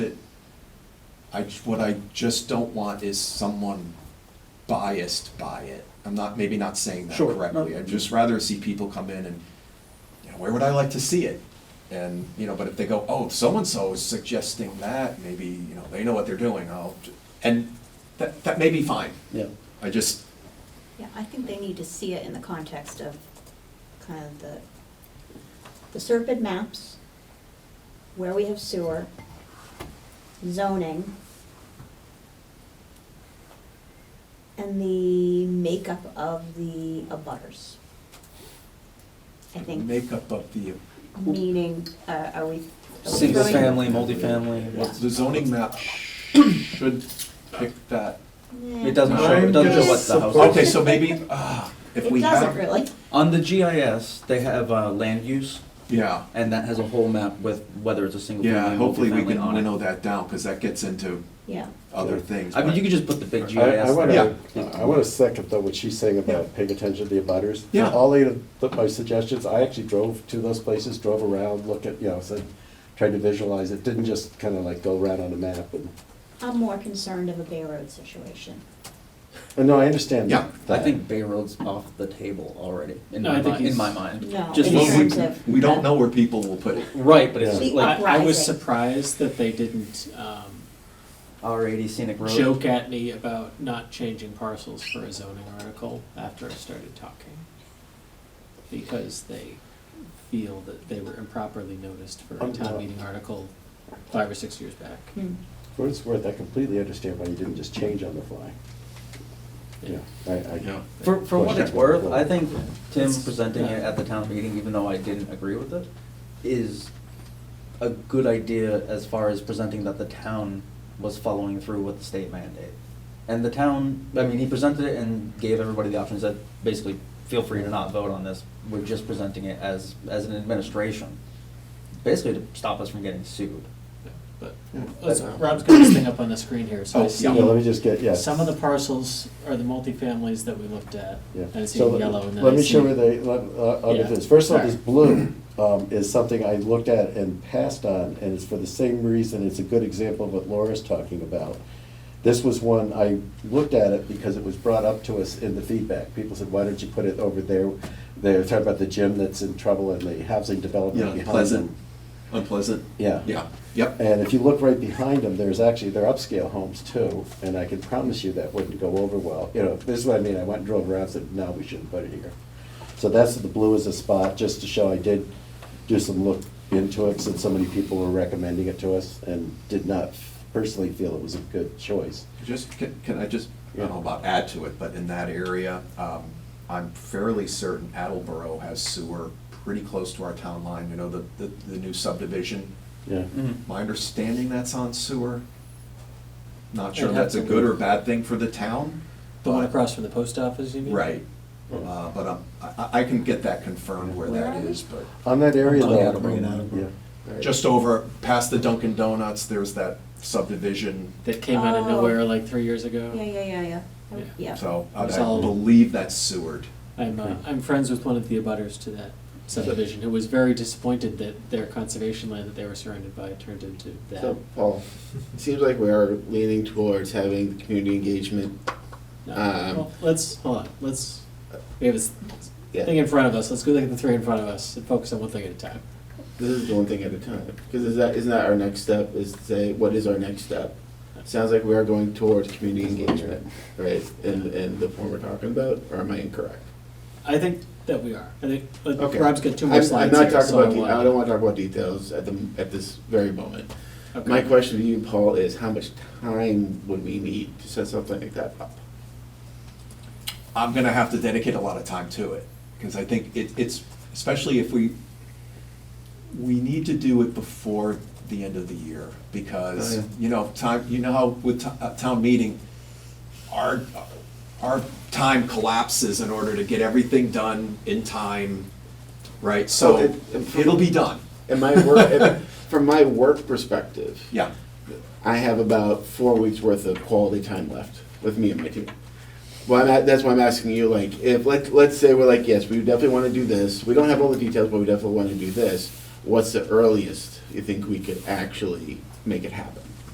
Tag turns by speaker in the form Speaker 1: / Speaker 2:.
Speaker 1: I, j- what I just don't want is someone biased by it. I'm not, maybe not saying that
Speaker 2: Sure, no.
Speaker 1: correctly. I'd just rather see people come in and, you know, where would I like to see it? And, you know, but if they go, oh, so-and-so is suggesting that, maybe, you know, they know what they're doing, I'll, j-" and that, that may be fine.
Speaker 2: Yeah,
Speaker 1: I just,
Speaker 3: Yeah, I think they need to see it in the context of kind of the, the Serpent maps, where we have sewer, zoning, and the makeup of the abutters. I think,
Speaker 1: makeup of the,
Speaker 3: meaning, uh, are we? are we
Speaker 2: Single
Speaker 3: throwing-
Speaker 2: family, multifamily,
Speaker 3: Yeah.
Speaker 1: well, the zoning map sh- should pick that.
Speaker 3: Nah.
Speaker 2: it doesn't show, it doesn't show what the house is.
Speaker 1: Okay, so maybe, uh, if
Speaker 3: It
Speaker 1: we
Speaker 3: doesn't
Speaker 1: have,
Speaker 3: really.
Speaker 2: On the GIS, they have uh, land use,
Speaker 1: yeah.
Speaker 2: and that has a whole map with whether it's a single
Speaker 1: Yeah,
Speaker 2: family,
Speaker 1: hopefully we
Speaker 2: multifamily
Speaker 1: can
Speaker 2: on
Speaker 1: winnow
Speaker 2: it.
Speaker 1: that down, because that gets into
Speaker 3: Yeah,
Speaker 1: other
Speaker 4: Yeah.
Speaker 1: things.
Speaker 2: I mean,
Speaker 1: but-
Speaker 2: you could just put the big GIS
Speaker 4: I, I
Speaker 2: there.
Speaker 4: wanna, I wanna second though what she's saying about paying attention to the abutters.
Speaker 1: Yeah.
Speaker 4: All eight of the- my suggestions, I actually drove to those places, drove around, looked at, you know, said, tried to visualize it, didn't just kinda like go around on a map and,
Speaker 3: I'm more concerned of a Bay Road situation.
Speaker 4: and no, I understand
Speaker 1: Yeah,
Speaker 4: that.
Speaker 2: I think Bay Road's off the table already, in
Speaker 5: No,
Speaker 2: my
Speaker 5: I think
Speaker 2: mind, in
Speaker 5: he's-
Speaker 2: my mind.
Speaker 3: No,
Speaker 2: Just
Speaker 3: in
Speaker 1: Well, we-
Speaker 3: terms of-
Speaker 1: We don't know where people will put it.
Speaker 2: Right, but it's
Speaker 4: Yeah.
Speaker 2: like
Speaker 5: I, I was
Speaker 3: Uprising.
Speaker 5: surprised that they didn't um,
Speaker 2: R eighty scenic road.
Speaker 5: joke at me about not changing parcels for a zoning article after I started talking. Because they feel that they were improperly noticed for a town meeting article five or six years back.
Speaker 3: Hmm.
Speaker 4: For what it's worth, I completely understand why you didn't just change on the fly. Yeah, I, I,
Speaker 2: For, for what it's worth, I think Tim
Speaker 5: It's-
Speaker 2: presenting it
Speaker 5: yeah.
Speaker 2: at the town meeting, even though I didn't agree with it, is a good idea as far as presenting that the town was following through with the state mandate. And the town, I mean, he presented it and gave everybody the options that basically, feel free to not vote on this, we're just presenting it as, as an administration. Basically to stop us from getting sued.
Speaker 5: But,
Speaker 1: Yeah.
Speaker 5: let's- Rob's got this thing up on the screen here, so
Speaker 1: Oh,
Speaker 5: I see.
Speaker 1: yeah.
Speaker 4: yeah, let me just get, yeah.
Speaker 5: Some of the parcels are the multifamilies that we looked at,
Speaker 4: Yeah.
Speaker 5: and it's
Speaker 4: So
Speaker 5: in
Speaker 4: let-
Speaker 5: yellow, and then
Speaker 4: Let
Speaker 5: I
Speaker 4: me
Speaker 5: see-
Speaker 4: show you the, let- uh, other
Speaker 5: Yeah.
Speaker 4: things. First of all, this
Speaker 5: Alright.
Speaker 4: blue um, is something I looked at and passed on, and it's for the same reason, it's a good example of what Laura's talking about. This was one, I looked at it because it was brought up to us in the feedback. People said, why don't you put it over there? They're talking about the gym that's in trouble and the housing development
Speaker 1: Yeah,
Speaker 4: behind
Speaker 1: pleasant,
Speaker 4: them.
Speaker 1: unpleasant.
Speaker 4: Yeah.
Speaker 1: Yeah, yep.
Speaker 4: And if you look right behind them, there's actually, they're upscale homes too, and I can promise you that wouldn't go over well. You know, this is what I mean, I went and drove around, and said, no, we shouldn't put it here. So that's, the blue is a spot, just to show I did do some look into it, since so many people were recommending it to us, and did not personally feel it was a good choice.
Speaker 1: Just, can can I just, I don't know about add to it, but in that area, um, I'm fairly certain Attleboro has sewer pretty close to our town line, you know, the, the the new subdivision.
Speaker 4: Yeah.
Speaker 2: Mm.
Speaker 5: Mm-hmm.
Speaker 1: My understanding that's on sewer. Not sure
Speaker 5: It'd
Speaker 1: if
Speaker 5: have
Speaker 1: that's a
Speaker 5: to
Speaker 1: good
Speaker 5: be-
Speaker 1: or bad thing for the town.
Speaker 5: The one
Speaker 1: but-
Speaker 5: across from the post office, you mean?
Speaker 1: Right, uh, but um, I, I can get that confirmed where
Speaker 3: Where
Speaker 1: that
Speaker 3: are we?
Speaker 1: is, but.
Speaker 4: On that area
Speaker 2: Bring it
Speaker 4: though.
Speaker 2: out, bring it out.
Speaker 4: Yeah.
Speaker 1: Just over, past the Dunkin' Donuts, there's that subdivision,
Speaker 5: That came out of
Speaker 3: Oh.
Speaker 5: nowhere like three years ago.
Speaker 3: Yeah, yeah, yeah, yeah. I would- Yeah.
Speaker 1: so I
Speaker 5: It's
Speaker 1: I
Speaker 5: all-
Speaker 1: believe that's Seward.
Speaker 5: I'm, uh,
Speaker 6: Hmm.
Speaker 5: I'm friends with one of the abutters to that subdivision, who was very disappointed that their conservation land that they were surrounded by turned into that.
Speaker 6: So, Paul, it seems like we are leaning towards having the community engagement.
Speaker 5: No,
Speaker 6: um,
Speaker 5: well, Let's, hold on, let's, we have this
Speaker 6: Yeah,
Speaker 5: thing in front of us, let's go look at the three in front of us and focus on one thing at a time.
Speaker 6: this is the one thing at a time. Because is that, isn't that our next step, is to say, what is our next step? Sounds like we are going towards community engagement, right, in, in the form we're talking about, or am I incorrect?
Speaker 5: I think that we are, I think, uh,
Speaker 6: Okay.
Speaker 5: Rob's got two
Speaker 6: I'm-
Speaker 5: more slides
Speaker 6: I'm not
Speaker 5: here,
Speaker 6: talking
Speaker 5: so uh, I
Speaker 6: about, de-
Speaker 5: want.
Speaker 6: I don't want to talk about details at the, at this very moment.
Speaker 5: Okay.
Speaker 6: My question to you, Paul, is how much time would we need to set something like that up?
Speaker 1: I'm gonna have to dedicate a lot of time to it, because I think it, it's, especially if we, we need to do it before the end of the year,
Speaker 6: Oh,
Speaker 1: because,
Speaker 6: yeah.
Speaker 1: you know, time, you know how with to- uh, town meeting, our, our time collapses in order to get everything done in time, right? So,
Speaker 6: Well, it-
Speaker 1: it'll be done,
Speaker 6: In my work, in- from my work perspective,
Speaker 1: yeah.
Speaker 6: I have about four weeks worth of quality time left with me and my team. Well, I'm at, that's why I'm asking you, like, if, like, let's say we're like, yes, we definitely want to do this, we don't have all the details, but we definitely want to do this, what's the earliest you think we could actually make it happen?